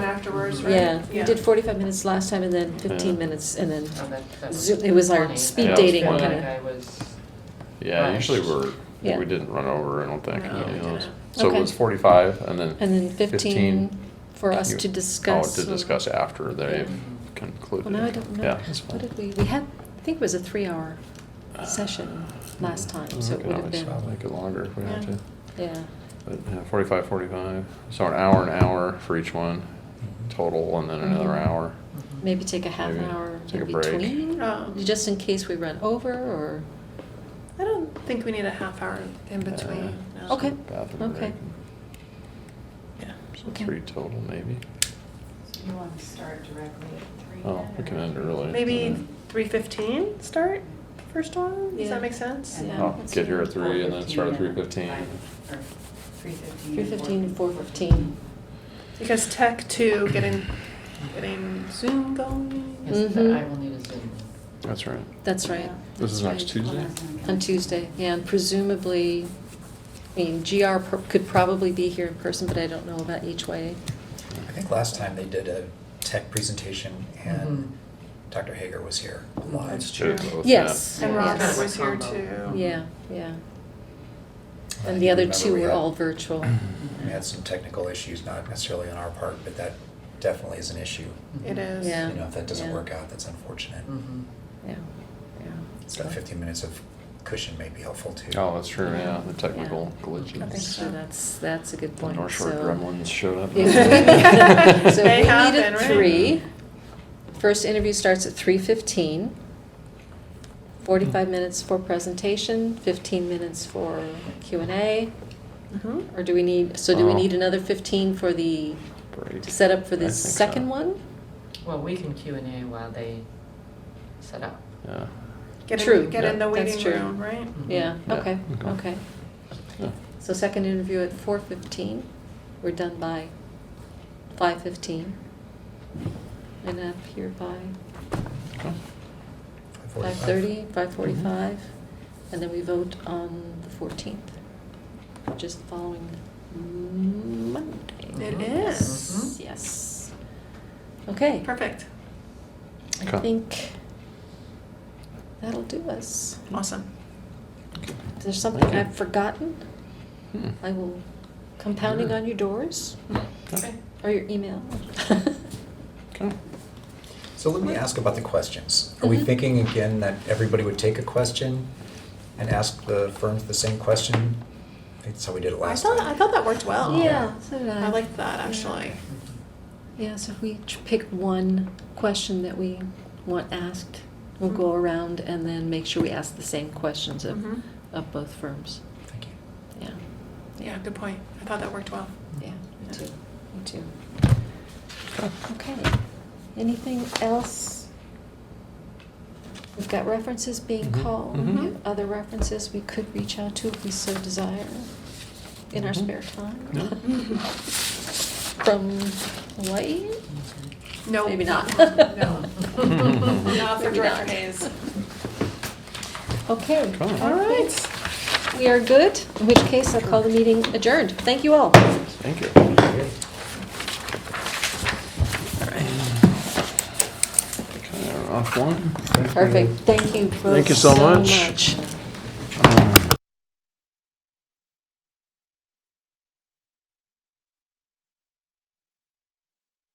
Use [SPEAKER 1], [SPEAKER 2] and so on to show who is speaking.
[SPEAKER 1] hours, right?
[SPEAKER 2] Mm-hmm. Yeah, we
[SPEAKER 1] Yeah.
[SPEAKER 2] did forty-five minutes last time and then fifteen
[SPEAKER 3] Yeah.
[SPEAKER 2] minutes and then,
[SPEAKER 1] Oh, that- that
[SPEAKER 2] Zo- it was our
[SPEAKER 1] funny.
[SPEAKER 2] speed
[SPEAKER 1] I
[SPEAKER 3] dating
[SPEAKER 1] feel
[SPEAKER 3] kinda-
[SPEAKER 1] like I was-
[SPEAKER 3] Yeah,
[SPEAKER 1] Right.
[SPEAKER 3] usually we're,
[SPEAKER 2] Yeah.
[SPEAKER 3] we didn't run over, I don't think.
[SPEAKER 1] No,
[SPEAKER 3] any
[SPEAKER 1] we
[SPEAKER 3] of those.
[SPEAKER 1] didn't.
[SPEAKER 3] So
[SPEAKER 2] Okay.
[SPEAKER 3] it was forty-five and then.
[SPEAKER 2] and then fifteen for us
[SPEAKER 3] you-
[SPEAKER 2] to discuss.
[SPEAKER 3] Oh, to discuss after
[SPEAKER 2] Yeah.
[SPEAKER 3] they've concluded.
[SPEAKER 2] Well, now I don't know,
[SPEAKER 3] Yeah, that's fine.
[SPEAKER 2] what did we, we had, I think it was a three-hour session last time, so
[SPEAKER 3] We
[SPEAKER 2] it
[SPEAKER 3] can
[SPEAKER 2] would have
[SPEAKER 3] always
[SPEAKER 2] been,
[SPEAKER 3] Make mm, it longer if we have
[SPEAKER 2] Yeah.
[SPEAKER 3] to.
[SPEAKER 2] yeah.
[SPEAKER 3] But yeah, forty-five, forty-five, so an hour, an hour for each one total and then another
[SPEAKER 2] Mhm.
[SPEAKER 3] hour.
[SPEAKER 1] Mhm.
[SPEAKER 2] Maybe take a half
[SPEAKER 3] Maybe
[SPEAKER 2] hour in
[SPEAKER 3] take a break.
[SPEAKER 2] between,
[SPEAKER 4] Oh.
[SPEAKER 2] just in case we run over or,
[SPEAKER 4] I don't think we need a half hour in
[SPEAKER 3] Uh,
[SPEAKER 4] between.
[SPEAKER 3] Yeah.
[SPEAKER 4] no.
[SPEAKER 2] Okay.
[SPEAKER 3] Bathroom
[SPEAKER 2] Okay.
[SPEAKER 3] break.
[SPEAKER 4] Yeah.
[SPEAKER 3] So
[SPEAKER 2] Okay.
[SPEAKER 3] Three total maybe.
[SPEAKER 5] So you want to start directly at three?
[SPEAKER 3] Oh,
[SPEAKER 5] then,
[SPEAKER 3] we
[SPEAKER 5] or-
[SPEAKER 3] can end early. and
[SPEAKER 4] Maybe
[SPEAKER 3] then-
[SPEAKER 4] three fifteen start first one. Does
[SPEAKER 2] Yeah.
[SPEAKER 4] that make sense?
[SPEAKER 5] And then
[SPEAKER 2] Yeah,
[SPEAKER 3] Oh,
[SPEAKER 2] that's
[SPEAKER 3] get here
[SPEAKER 2] fine.
[SPEAKER 3] at three and then start at three
[SPEAKER 5] 4:15,
[SPEAKER 3] fifteen.
[SPEAKER 5] five- or 3:15.
[SPEAKER 2] three fifteen, four fifteen.
[SPEAKER 4] Because tech two, getting getting Zoom going.
[SPEAKER 1] Yes, but
[SPEAKER 2] Mhm.
[SPEAKER 1] I will need a Zoom.
[SPEAKER 3] That's right.
[SPEAKER 2] That's right.
[SPEAKER 5] Yeah.
[SPEAKER 3] This is
[SPEAKER 2] that's
[SPEAKER 3] next
[SPEAKER 2] right.
[SPEAKER 3] Tuesday?
[SPEAKER 2] On Tuesday, yeah, and presumably, I mean, GR pro- could probably be here in person, but I don't know about each way.
[SPEAKER 6] I think last time they did a tech presentation
[SPEAKER 1] Mhm.
[SPEAKER 6] and Dr. Hager was here live.
[SPEAKER 4] That's true.
[SPEAKER 3] Both, yeah.
[SPEAKER 2] Yes.
[SPEAKER 4] And
[SPEAKER 1] Mm-hmm. Yeah.
[SPEAKER 4] Robert
[SPEAKER 2] yes.
[SPEAKER 4] was here
[SPEAKER 1] Combo.
[SPEAKER 4] too.
[SPEAKER 2] Yeah, yeah.
[SPEAKER 6] I
[SPEAKER 2] And
[SPEAKER 6] do
[SPEAKER 2] the other
[SPEAKER 6] remember
[SPEAKER 2] two
[SPEAKER 6] we
[SPEAKER 2] were
[SPEAKER 6] had-
[SPEAKER 2] all virtual.
[SPEAKER 6] We had some technical issues, not necessarily on our part, but that definitely is an issue.
[SPEAKER 4] It is.
[SPEAKER 2] Yeah.
[SPEAKER 6] You know, if that doesn't
[SPEAKER 2] Yeah.
[SPEAKER 6] work out, that's unfortunate.
[SPEAKER 1] Mhm.
[SPEAKER 2] Yeah, yeah.
[SPEAKER 6] So that fifteen minutes of cushion may be helpful too.
[SPEAKER 3] Oh, that's true, yeah, the technical
[SPEAKER 2] Yeah.
[SPEAKER 3] glitches.
[SPEAKER 2] I think so, that's, that's a good
[SPEAKER 3] The
[SPEAKER 2] point,
[SPEAKER 3] North Shore
[SPEAKER 2] so.
[SPEAKER 3] gremlins showed up.
[SPEAKER 2] Yeah. So
[SPEAKER 4] They
[SPEAKER 2] we need
[SPEAKER 4] happen,
[SPEAKER 2] a
[SPEAKER 4] right?
[SPEAKER 2] three. First interview starts at three fifteen. Forty-five
[SPEAKER 3] Hmm.
[SPEAKER 2] minutes for presentation, fifteen minutes for Q and A.
[SPEAKER 4] Mhm.
[SPEAKER 2] Or do we need, so do we
[SPEAKER 3] Oh.
[SPEAKER 2] need another fifteen for the,
[SPEAKER 3] Break.
[SPEAKER 2] to set up for
[SPEAKER 3] I
[SPEAKER 2] the
[SPEAKER 3] think so.
[SPEAKER 2] second one?
[SPEAKER 1] Well, we can Q and A while they set up.
[SPEAKER 3] Yeah.
[SPEAKER 4] Get
[SPEAKER 2] True.
[SPEAKER 4] in, get in the
[SPEAKER 2] Yeah. That's
[SPEAKER 4] waiting
[SPEAKER 2] true. Mm-hmm.
[SPEAKER 4] room, right?
[SPEAKER 1] Mhm.
[SPEAKER 2] Yeah,
[SPEAKER 3] Mm-hmm. Yeah,
[SPEAKER 2] okay,
[SPEAKER 3] okay.
[SPEAKER 2] okay.
[SPEAKER 3] Yeah.
[SPEAKER 2] So second interview at four fifteen, we're done by five fifteen. And up here by
[SPEAKER 3] Okay.
[SPEAKER 2] five
[SPEAKER 6] 5:45.
[SPEAKER 2] thirty,
[SPEAKER 3] Mm-hmm.
[SPEAKER 2] five forty-five, and then we vote on the fourteenth, which is the following Monday.
[SPEAKER 3] Mm-hmm.
[SPEAKER 4] It
[SPEAKER 1] Mhm.
[SPEAKER 4] is.
[SPEAKER 2] Yes. Okay,
[SPEAKER 4] Perfect.
[SPEAKER 2] I
[SPEAKER 3] Okay.
[SPEAKER 2] think that'll do us.
[SPEAKER 4] Awesome.
[SPEAKER 2] If there's something
[SPEAKER 3] Thank you.
[SPEAKER 2] I've forgotten,
[SPEAKER 3] Hmm.
[SPEAKER 2] I will come pounding
[SPEAKER 3] Sure.
[SPEAKER 2] on your doors
[SPEAKER 3] Okay.
[SPEAKER 2] or your email.
[SPEAKER 3] Okay.
[SPEAKER 6] So let me ask about the questions. Are we
[SPEAKER 2] Mhm.
[SPEAKER 6] thinking again that everybody would take a question and ask the firms the same question? I think That's how we did it
[SPEAKER 4] I
[SPEAKER 6] last
[SPEAKER 4] thought
[SPEAKER 6] time.
[SPEAKER 4] I thought that worked well.
[SPEAKER 2] Yeah, so did I.
[SPEAKER 4] I liked that actually.
[SPEAKER 2] Yeah, so if we ch- pick one question that we want asked, we'll go
[SPEAKER 4] Mhm.
[SPEAKER 2] around and then make sure we ask the same questions of,
[SPEAKER 4] Mhm.
[SPEAKER 2] of both firms.
[SPEAKER 6] Thank you.
[SPEAKER 2] Yeah,
[SPEAKER 4] Yeah, good point. I thought that worked well.
[SPEAKER 2] yeah, me
[SPEAKER 4] Yeah.
[SPEAKER 2] too, me too. Oh, Okay, anything else? We've got references being
[SPEAKER 3] Mhm.
[SPEAKER 2] called,
[SPEAKER 3] Mhm.
[SPEAKER 2] We have other references we could reach out to if we so desire in our
[SPEAKER 3] Mhm.
[SPEAKER 2] spare time.
[SPEAKER 3] Yeah.
[SPEAKER 2] From Hawaii?
[SPEAKER 1] Mhm.
[SPEAKER 4] No.
[SPEAKER 2] Maybe not.
[SPEAKER 4] No. Not for
[SPEAKER 2] Maybe
[SPEAKER 4] Director
[SPEAKER 2] not.
[SPEAKER 4] Hayes.
[SPEAKER 2] Okay.
[SPEAKER 3] Cool.
[SPEAKER 4] All right.
[SPEAKER 2] We are good, in which case I'll call the meeting adjourned. Thank you all.
[SPEAKER 3] Thank you. Okay, off one.
[SPEAKER 2] Perfect, thank you both
[SPEAKER 3] Thank you so much.
[SPEAKER 2] much.